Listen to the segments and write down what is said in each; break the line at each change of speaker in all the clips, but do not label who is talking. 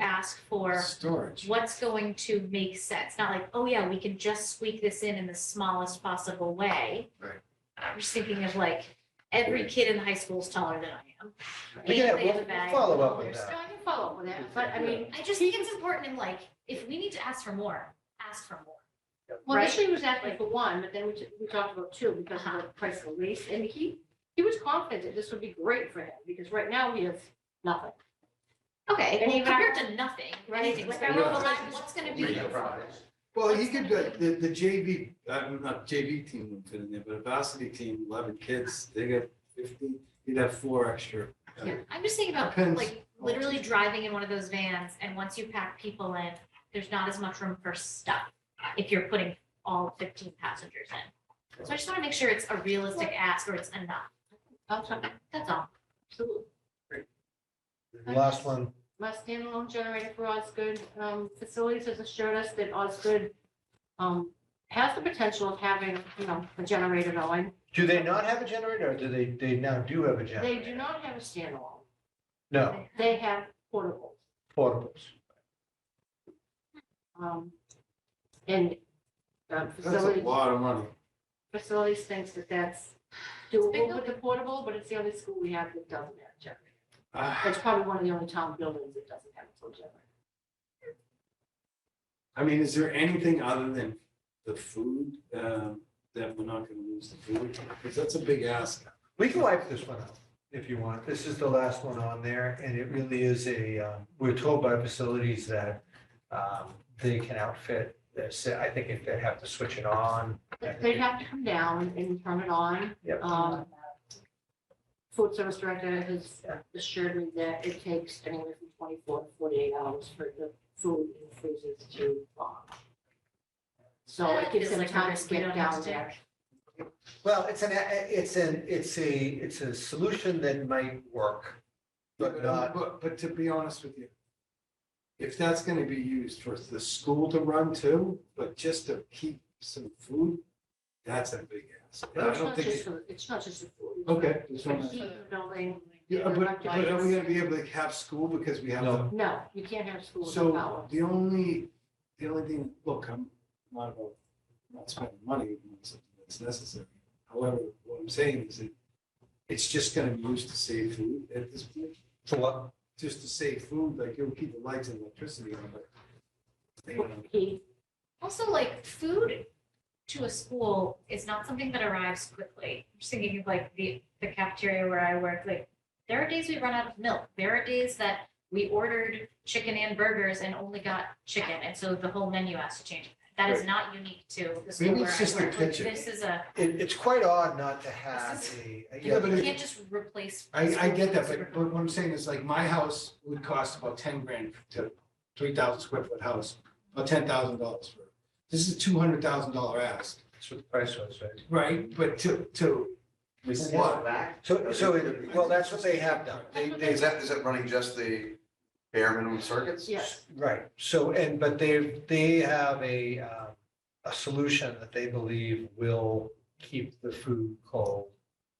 ask for
Storage.
what's going to make sense, not like, oh yeah, we can just squeak this in in the smallest possible way.
Right.
I'm just thinking of like, every kid in high school is taller than I am.
We
And
can,
they have a
we'll- we'll
bag
follow up
full
with
of-
that.
No, I can follow up with that, but I mean, I just think it's important in like, if we need to ask for more, ask for more.
Well,
Right.
initially he was asking for one, but then we, t- we talked about two because of the price of the lease, and he, he was confident that this would be great for him, because right now we have nothing.
Okay,
And
well,
even I-
compared to nothing,
Right.
anything, like, I
Yeah.
will, like, what's gonna be.
Read the Well, you could, uh, the, the JV, uh, not JV team would fit in there, but a varsity team, eleven kids, they get fifteen, you'd have four extra.
I'm just thinking about
Depends.
like literally driving in one of those vans and once you pack people in, there's not as much room for stuff if you're putting all fifteen passengers in. So I just want to make sure it's a realistic ask or it's enough.
That's all.
That's all.
Absolutely.
Last one,
My standalone generator for Osgood um, Facilities has assured us that Osgood um, has the potential of having, you know, a generator going.
do they not have a generator or do they, they now do have a generator?
They do not have a standalone.
No,
They have portables.
portables.
um, And um,
That's a
facilities,
lot of money.
facilities thinks that that's
big,
doable
though.
with the portable, but it's the only school we have that doesn't have a generator.
Ah,
It's probably one of the only town buildings that doesn't have a full generator.
I mean, is there anything other than the food, um, that we're not gonna lose the food? Because that's a big ask.
We can wipe this one out if you want. This is the last one on there and it really is a, um, we're told by facilities that um, they can outfit this. I think if they have to switch it on.
But They'd have to come down and turn it on.
Yep.
Um, Food service director has
Yeah.
assured me that it takes anywhere from twenty-four to forty-eight hours for the food and freezers to thaw. So it gives them
It's like
time to
risk we
get
don't have
down
to
there.
take.
Well, it's an, it's an, it's a, it's a solution that might work, but not,
But, but to be honest with you, if that's gonna be used for the school to run too, but just to keep some food, that's a big ask. And I
It's
don't
not
think,
just,
it-
for- it's not just the food.
okay. just
For
wanna-
heat in the building.
Yeah,
for
but, but are we
electrics.
gonna be able to have school because we have,
No.
the-
No, you can't have school without power.
so the only, the only thing, look, I'm not about, not spending money on something that's necessary. However, what I'm saying is that it's just gonna be used to save food at this point,
for what,
just to save food, like it'll keep the lights and electricity on, but. you know,
Heat,
Also, like food to a school is not something that arrives quickly. I'm just thinking of like the, the cafeteria where I work, like there are days we run out of milk. There are days that we ordered chicken and burgers and only got chicken. And so the whole menu has to change. That is not unique to the school
Maybe
where
it's
I
just the
work. Like,
kitchen.
This is a,
it, it's quite odd not to have
This
a.
Yeah, but
you
it-
can't just replace.
I, I get that,
school
but, but what I'm saying is like my house would cost about ten grand to three thousand square foot house, about ten thousand dollars for. it. This is a two hundred thousand dollar ask.
That's what the price was, right?
Right, but to, to,
We
For
see
what?
it back.
So, so, it- well, that's what they have done. They, they,
Is that, is that running just the bare minimum circuits?
yes.
right, so, and, but they, they have a, um, a solution that they believe will keep the food cold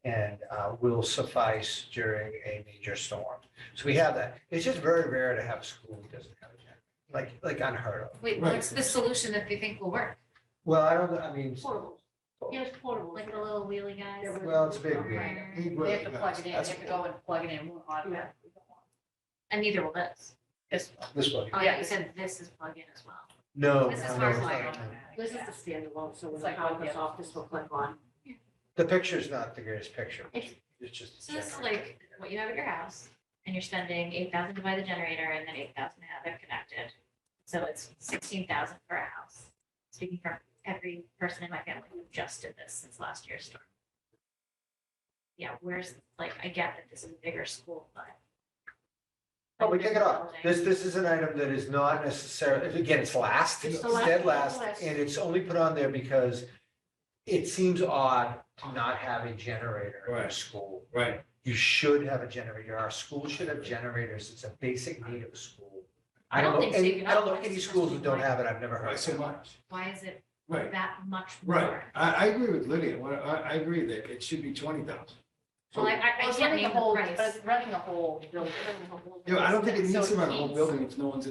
and, uh, will suffice during a major storm. So we have that. It's just very rare to have a school that doesn't have a generator, like, like unheard of.
Wait,
Right.
what's the solution that they think will work?
Well, I don't, I mean,
Portables. Yes, portables.
Like the little wheelie guys?
Yeah,
well, it's a big deal.
Right.
They have to plug it in, they
That's-
have to go and plug it in, we're on
Yeah.
that.
And neither will this.
This
This one.
Oh, yeah, you said this is plug-in as well.
No.
This is
no, no,
hard
it's
wired.
not.
This is the standalone, so when
It's
the
like
power
one,
goes
yeah.
off, this will click on.
The picture's not the greatest picture.
It's-
It's just.
So this is
generator.
like what you have at your house, and you're spending eight thousand to buy the generator and then eight thousand to have it connected. So it's sixteen thousand for a house. Speaking from every person in my family who just did this since last year's storm. Yeah, where's, like, I get that this is a bigger school, but.
Oh, we take it off.
Building.
This, this is an item that is not necessarily, again, it's last,
It's
it's
the last,
dead last,
last.
and it's only put on there because it seems odd to not have a generator in a
Right.
school.
Right,
You should have a generator. Our school should have generators. It's a basic need of a school. I
I
don't
don't
know,
think so.
any-
You
I don't
know,
know any
it's
schools that
just
don't
like-
have it. I've never heard
right,
of
so
it.
much,
Why is it
right,
that much more?
right. I, I agree with Lydia, What- I, I agree that it should be twenty thousand.
Well, I, I- I
It's
can't
running
name
the
the
whole,
price.
but it's running the whole building.
Yeah, I don't think it
So
needs to run a
it
whole
needs-
building if no one's in